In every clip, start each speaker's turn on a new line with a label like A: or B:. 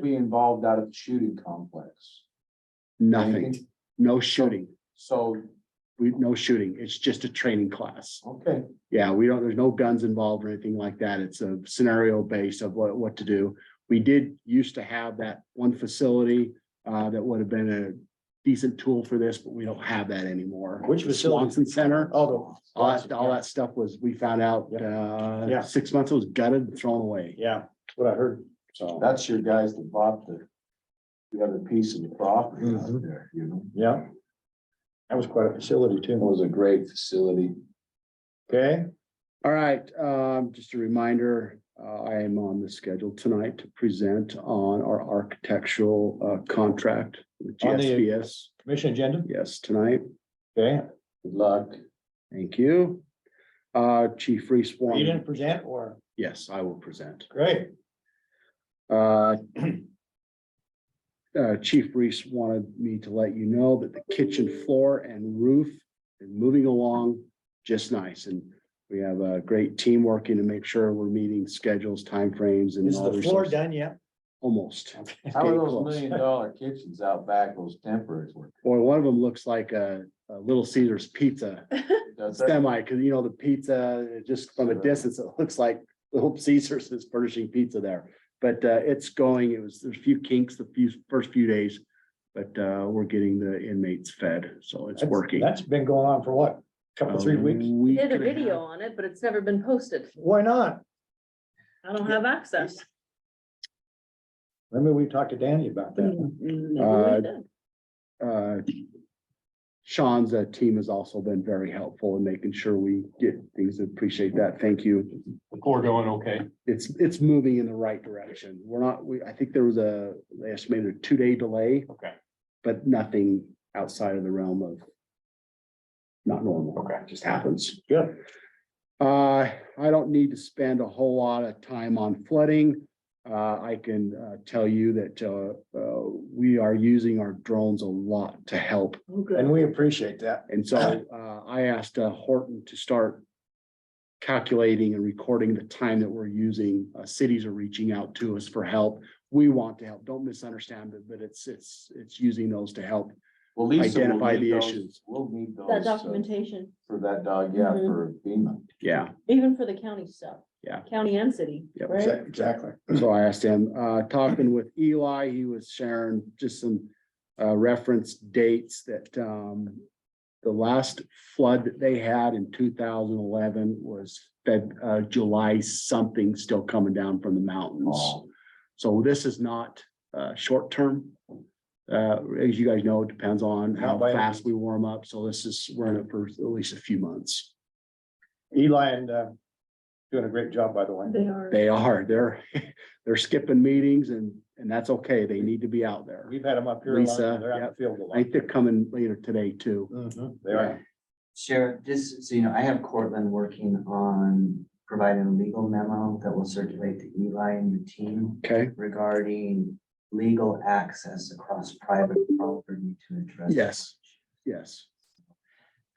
A: be involved out of the shooting complex?
B: Nothing,
A: Anything?
B: no shooting,
A: So,
B: we, no shooting. It's just a training class.
A: okay,
B: Yeah, we don't, there's no guns involved or anything like that. It's a scenario based of what, what to do. We did used to have that one facility uh, that would have been a decent tool for this, but we don't have that anymore.
C: Which facility?
B: Swanson Center.
C: Oh, the-
B: All that, all that stuff was, we found out,
C: Yeah.
B: uh, six months it was gutted, and thrown away.
C: Yeah, that's what I heard.
B: So
A: that's your guys that bought the. The other piece of the property
B: Mm-hmm.
A: out there, you know,
C: Yeah. That was quite a facility
A: it
C: too.
A: was a great facility.
C: Okay,
B: All right, um, just a reminder, uh, I am on the schedule tonight to present on our architectural, uh, contract. with
C: On the-
B: GSBS,
C: commission agenda.
B: yes, tonight,
C: Okay,
B: Um,
A: Good luck.
B: thank you. Uh, Chief Reese
C: you
B: Warren,
C: didn't present or,
B: yes, I will present.
C: great.
B: Uh, uh, Chief Reese wanted me to let you know that the kitchen floor and roof is moving along just nice and we have a great team working to make sure we're meeting schedules, timeframes and
C: Is
B: all.
C: the floor
B: resources.
C: done yet?
B: Almost.
A: How are
B: Getting
A: those
B: close.
A: million dollar kitchens out back, those temporaries working?
B: Boy, one of them looks like a, a Little Caesar's pizza
A: Does that-
B: semi, because you know, the pizza, uh, just from a
A: Sure.
B: distance, it looks like Little Caesar's is furnishing pizza there. But, uh, it's going, it was, there's a few kinks the few, first few days, but, uh, we're getting the inmates fed, so it's
C: That's-
B: working. Um,
C: That's been going on for what? Couple, three
B: A
C: weeks?
B: week
D: Did a
B: and half.
D: video on it, but it's never been posted.
C: Why not?
D: I don't have access.
C: Remember we talked to Danny about that?
D: Mm,
B: Uh,
D: Never did.
B: uh, Sean's uh, team has also been very helpful in making sure we get things. Appreciate that. Thank you.
E: The core going okay.
B: It's, it's moving in the right direction. We're not, we, I think there was a, they estimated a two-day delay.
E: Okay.
B: But nothing outside of the realm of not normal.
E: Okay.
B: Just happens.
C: Good.
B: Uh, I don't need to spend a whole lot of time on flooding. Uh, I can, uh, tell you that, uh, uh, we are using our drones a lot to help
D: Oh, good.
C: And we appreciate that.
B: and so uh, I asked uh, Horton to start calculating and recording the time that we're using. Uh, Cities are reaching out to us for help. We want to help. Don't misunderstand it, but it's, it's, it's using those to help.
A: Well, Lisa will
B: Identify
A: need
B: the
A: those-
B: issues.
A: We'll need those.
D: That
A: uh,
D: documentation,
A: For that dog, yeah,
D: Mhm.
A: for FEMA.
B: Yeah.
D: even for the county stuff.
B: Yeah.
D: County and city,
B: Yep.
D: right?
C: Exactly.
B: So I asked him, uh, talking with Eli, he was sharing just some, uh, reference dates that, um, the last flood that they had in two thousand eleven was Feb, uh, July something still coming down from the mountains.
A: Oh,
B: So this is not uh short term. Uh, as you guys know, it depends on how
C: Not by any
B: fast we warm up. So this is, we're in it for at least a few months.
C: Eli and, uh, doing a great job, by the way.
D: They are.
B: They are, they're, they're skipping meetings and and that's okay. They need to be out there.
C: We've had them up here. a lot,
B: Lisa,
C: They're out in
B: yep.
C: the field a
B: I think mm-hmm. they're coming later today too.
C: lot. Mhm, They are.
F: Sheriff, just so you know, I have Cortland working on providing a legal memo that will circulate to Eli and the team
B: Okay,
F: regarding legal access across private property to address.
B: Yes. yes,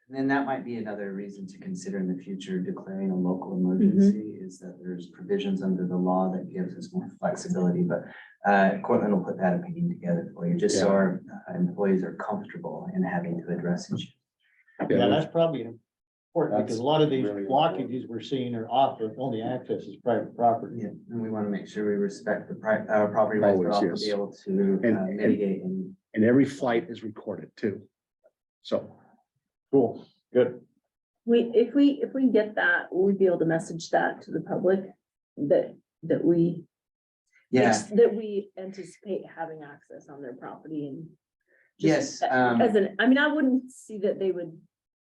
F: And Then that might be another reason to consider in the future declaring a local emergency is that there's provisions under the law that gives us more flexibility, but uh, Cortland will put that opinion together for you, just so
B: Yeah.
F: our uh, employees are comfortable in having to address issues.
C: Yeah,
B: yeah,
C: that's probably important because a lot of these
A: That's really
C: blockages we're seeing are off, the only access is private property.
F: Yeah, and we want to make sure we respect the pri- our property rights, but
B: Always,
F: also
B: yes.
F: be able to
B: And-
F: uh,
B: and-
F: mitigate and.
B: and every flight is recorded too. So,
C: Cool, good.
D: We, if we, if we get that, we'd be able to message that to the public that, that we.
F: Yeah,
D: That we anticipate having access on their property and.
F: yes,
D: just uh,
F: um,
D: As an, I mean, I wouldn't see that they would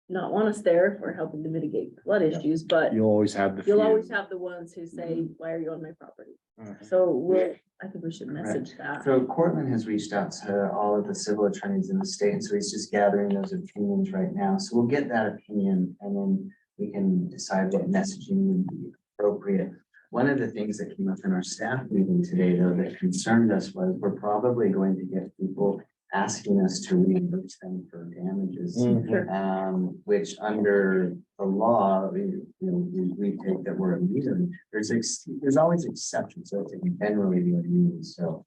D: not want us there if we're helping to mitigate flood issues, but
B: you'll always have the.
D: you'll
B: few.
D: always have the ones who say, why are you on my property?
F: Mhm.
D: So we'll, I think we should
F: Correct.
D: message that.
F: so Cortland has reached out to all of the civil attorneys in the state, and so he's just gathering those opinions right now. So we'll get that opinion and then we can decide what messaging would be appropriate. One of the things that came up in our staff meeting today, though, that concerned us was we're probably going to get people asking us to reimburse them for damages.
C: Mm. Uhum.
F: Um, which under the law, we, you know, we, we take that we're immune. There's ex, there's always exceptions, so it's generally the immune, so.